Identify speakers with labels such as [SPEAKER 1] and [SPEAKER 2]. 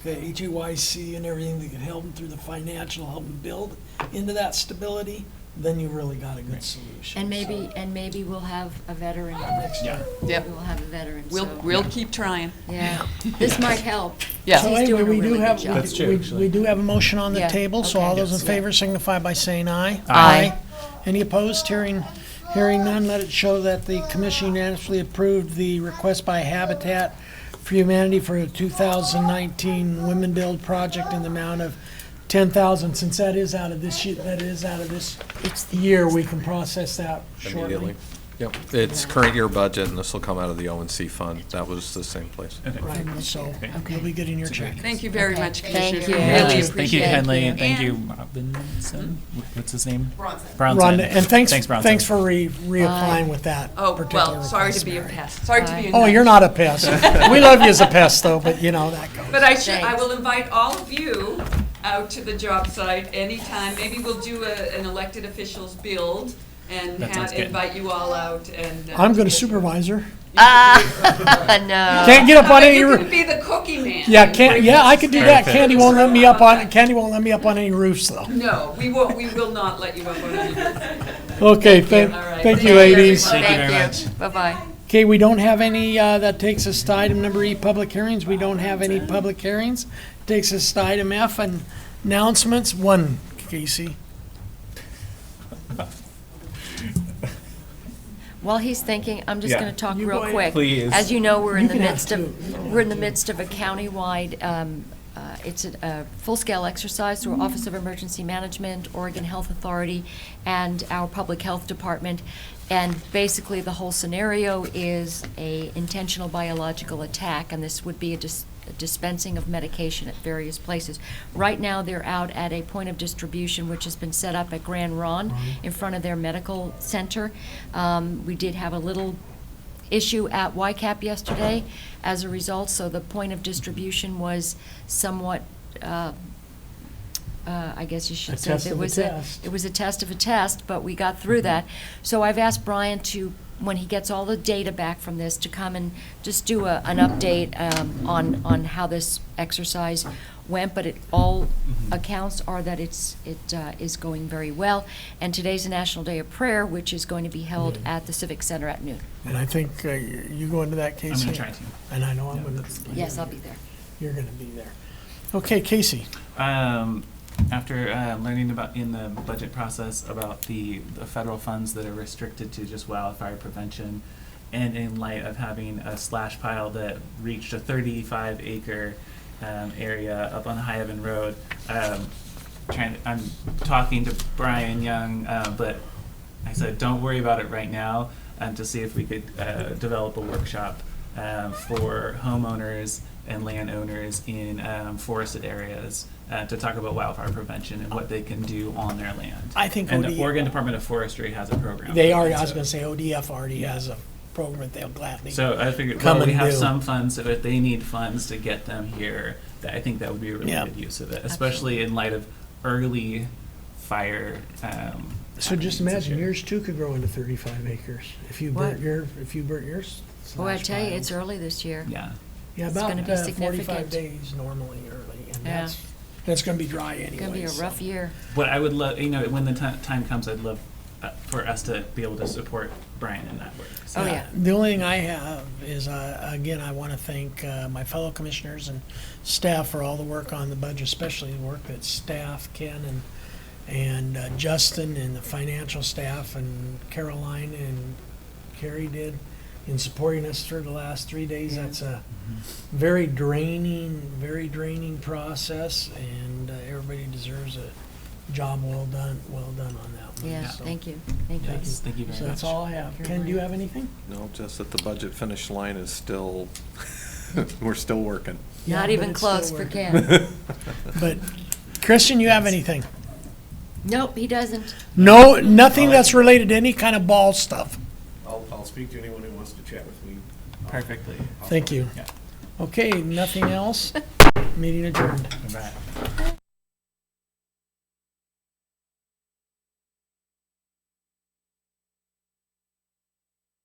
[SPEAKER 1] the HEYC and everything that can help them through the financial, help them build into that stability, then you really got a good solution.
[SPEAKER 2] And
[SPEAKER 1] So,
[SPEAKER 2] maybe, and maybe we'll have a veteran next
[SPEAKER 3] Yeah.
[SPEAKER 2] year.
[SPEAKER 4] Yep.
[SPEAKER 2] We'll have a veteran,
[SPEAKER 4] We'll,
[SPEAKER 2] so-
[SPEAKER 4] we'll keep trying.
[SPEAKER 2] Yeah, this might help.
[SPEAKER 4] Yeah.
[SPEAKER 1] So
[SPEAKER 2] He's
[SPEAKER 1] anyway,
[SPEAKER 2] doing a
[SPEAKER 1] we do
[SPEAKER 2] really
[SPEAKER 1] have, we
[SPEAKER 2] good job.
[SPEAKER 3] That's true,
[SPEAKER 1] do- we-
[SPEAKER 3] actually.
[SPEAKER 1] we do have a motion on the
[SPEAKER 2] Yeah,
[SPEAKER 1] table, so all
[SPEAKER 2] okay.
[SPEAKER 1] those in
[SPEAKER 2] Yes.
[SPEAKER 1] favor signify by saying aye.
[SPEAKER 2] Aye.
[SPEAKER 1] Any opposed? Hearing, hearing none, let it show that the commission unanimously approved the request by Habitat for Humanity for a 2019 Women Build project in the amount of 10,000. Since that is out of this, ye- that is out of this year, we can process that shortly.
[SPEAKER 5] Immediately. Yep, it's current year budget, and this will come out of the ONC fund. That was the same place.
[SPEAKER 1] Right, so
[SPEAKER 2] Okay.
[SPEAKER 1] you'll be getting your check.
[SPEAKER 4] Thank you very
[SPEAKER 2] Okay.
[SPEAKER 4] much,
[SPEAKER 2] Thank
[SPEAKER 4] Commissioner.
[SPEAKER 2] you.
[SPEAKER 4] We
[SPEAKER 2] Yeah,
[SPEAKER 4] Really
[SPEAKER 2] just
[SPEAKER 3] Thank you,
[SPEAKER 4] appreciate it.
[SPEAKER 3] Kenley,
[SPEAKER 2] it.
[SPEAKER 3] and thank you, Robinson, Wh- what's his name? Bronson.
[SPEAKER 1] Rhonda, and thanks,
[SPEAKER 3] Bronson.
[SPEAKER 1] thanks for re, reapplying with that
[SPEAKER 4] Oh,
[SPEAKER 1] particular
[SPEAKER 4] well, sorry to
[SPEAKER 1] request,
[SPEAKER 4] be a
[SPEAKER 1] Mary.
[SPEAKER 4] pest, sorry to be a
[SPEAKER 1] Oh,
[SPEAKER 4] nut.
[SPEAKER 1] you're not a pest. We love you as a pest, though, but you know, that goes.
[SPEAKER 4] But I should, I
[SPEAKER 2] Thanks.
[SPEAKER 4] will invite all of you out to the job site anytime. Maybe we'll do a, an elected officials build and
[SPEAKER 3] That sounds
[SPEAKER 4] have,
[SPEAKER 3] good.
[SPEAKER 4] invite you all out and. uh,
[SPEAKER 1] I'm gonna
[SPEAKER 4] get-
[SPEAKER 1] supervisor.
[SPEAKER 2] No.
[SPEAKER 1] Can't get up on any,
[SPEAKER 4] Oh, You
[SPEAKER 1] roo-
[SPEAKER 4] could be the cookie man.
[SPEAKER 1] yeah, can't, yeah, I could do that. Candy won't let me up on,
[SPEAKER 4] Okay.
[SPEAKER 1] Candy won't let me up on any roofs, though.
[SPEAKER 4] No, we won't, we will not let you up on any.
[SPEAKER 1] Okay, thank,
[SPEAKER 4] All right.
[SPEAKER 1] thank you,
[SPEAKER 4] Thank you,
[SPEAKER 1] ladies.
[SPEAKER 4] everyone.
[SPEAKER 3] Thank you very much.
[SPEAKER 2] Thank you, bye-bye.
[SPEAKER 1] Okay, we don't have any, uh, that takes us to item number E, public hearings. We don't have any public hearings. Takes us to item F, and announcements. One, Casey.
[SPEAKER 2] While he's thinking, I'm just
[SPEAKER 3] Yeah.
[SPEAKER 2] going to talk
[SPEAKER 1] You
[SPEAKER 2] real
[SPEAKER 1] go ahead.
[SPEAKER 2] quick.
[SPEAKER 3] Please.
[SPEAKER 2] As you know, we're in
[SPEAKER 1] You
[SPEAKER 2] the
[SPEAKER 1] can have
[SPEAKER 2] midst
[SPEAKER 1] two. You
[SPEAKER 2] of, we're in the midst of a countywide, um, uh, it's a- a full-scale exercise
[SPEAKER 1] Mm-hmm.
[SPEAKER 2] through Office of Emergency Management, Oregon Health Authority, and our Public Health Department. And basically, the whole scenario is a intentional biological attack, and this would be a dis- a dispensing of medication at various places. Right now, they're out at a point of distribution, which has been set up at Grand Ron
[SPEAKER 1] Mm-hmm.
[SPEAKER 2] in front of their medical center. Um, We did have a little issue at YCAP yesterday as a result, so the point of distribution was somewhat, uh, uh, I guess you
[SPEAKER 1] A
[SPEAKER 2] should say.
[SPEAKER 1] test
[SPEAKER 2] there
[SPEAKER 1] of a
[SPEAKER 2] was a-
[SPEAKER 1] test. Mm-hmm.
[SPEAKER 2] It was a test of a test, but we got through that. So I've asked Brian to, when he gets all the data back from this, to come and just do a, an update um, on, on how this exercise went, but it, all
[SPEAKER 3] Mm-hmm.
[SPEAKER 2] accounts are that it's, it uh, is going very well. And today's a National Day of Prayer, which is going to be held at the Civic Center at noon.
[SPEAKER 1] And I think uh, you you go into that, Casey.
[SPEAKER 3] try to.
[SPEAKER 1] And I know I'm gonna,
[SPEAKER 2] Yes, I'll be there.
[SPEAKER 1] you're gonna be there. Okay, Casey.
[SPEAKER 3] Um, after uh, learning about in the budget process about the, the federal funds that are restricted to just wildfire prevention, and in light of having a slash pile that reached a 35 acre um, area up on High Evan Road, um, trying I'm talking to Brian Young, uh, but I said, don't worry about it right now, um, to see if we could uh, develop a workshop um, for homeowners and landowners in um, forested areas uh, to talk about wildfire prevention and what they can do on their land.
[SPEAKER 1] I think
[SPEAKER 3] and uh, the
[SPEAKER 1] ODE
[SPEAKER 3] Oregon Department of Forestry has a program.
[SPEAKER 1] They
[SPEAKER 3] for
[SPEAKER 1] already,
[SPEAKER 3] that,
[SPEAKER 1] I was
[SPEAKER 3] so-
[SPEAKER 1] gonna say ODF already has a program that they'll gladly.
[SPEAKER 3] So I figured,
[SPEAKER 1] Come
[SPEAKER 3] well, we
[SPEAKER 1] and
[SPEAKER 3] have
[SPEAKER 1] do.
[SPEAKER 3] some funds, so if they need funds to get them here, that I think that would be a really
[SPEAKER 1] Yeah.
[SPEAKER 3] good use of it, especially in light of early fire. Um,
[SPEAKER 1] So just
[SPEAKER 3] happenings this
[SPEAKER 1] imagine,
[SPEAKER 3] year.
[SPEAKER 1] yours too could grow into thirty-five acres if you
[SPEAKER 2] What?
[SPEAKER 1] burnt your, if you burnt yours.
[SPEAKER 2] Oh, I
[SPEAKER 1] slash
[SPEAKER 2] tell you, it's
[SPEAKER 1] filed.
[SPEAKER 2] early this year.
[SPEAKER 3] Yeah.
[SPEAKER 1] Yeah,
[SPEAKER 2] it's gonna
[SPEAKER 1] about
[SPEAKER 2] be
[SPEAKER 1] uh, forty-five
[SPEAKER 2] significant.
[SPEAKER 1] days normally early, and
[SPEAKER 2] Yeah.
[SPEAKER 1] that's, and it's gonna be dry anyway.
[SPEAKER 2] It's gonna be a
[SPEAKER 1] so-
[SPEAKER 2] rough year.
[SPEAKER 3] What I would love, you know, when the ti- time comes, I'd love uh, for us to be able to support Brian in that work. So
[SPEAKER 2] Oh, yeah.
[SPEAKER 1] The only thing I have is, uh, again, I want to thank uh, my fellow commissioners and staff for all the work on the budget, especially the work that staff, Ken and, and uh, Justin and the financial staff and Caroline and Carrie did in supporting us through the last three days. That's a very draining, very draining process, and uh, everybody deserves a job well done, well done on that one.
[SPEAKER 2] Yeah,
[SPEAKER 1] so.
[SPEAKER 2] thank you, thank you.
[SPEAKER 3] Yes, thank you very
[SPEAKER 1] Oh, So
[SPEAKER 3] much.
[SPEAKER 1] that's all I have. Ken, do you have anything?
[SPEAKER 5] No, just that the budget finish line is still, we're still working.
[SPEAKER 1] Yeah,
[SPEAKER 2] Not
[SPEAKER 1] but
[SPEAKER 2] even
[SPEAKER 1] it's still
[SPEAKER 2] close for
[SPEAKER 1] working.
[SPEAKER 2] Ken.
[SPEAKER 1] But Christian, you have anything?
[SPEAKER 2] Nope, he doesn't.
[SPEAKER 1] No, nothing that's related to any kind of ball stuff.
[SPEAKER 6] I'll, I'll speak to anyone who wants to chat with me.
[SPEAKER 3] Perfectly.
[SPEAKER 1] Thank you.
[SPEAKER 3] Yeah.
[SPEAKER 1] Okay, nothing else? Meeting adjourned.
[SPEAKER 3] Right.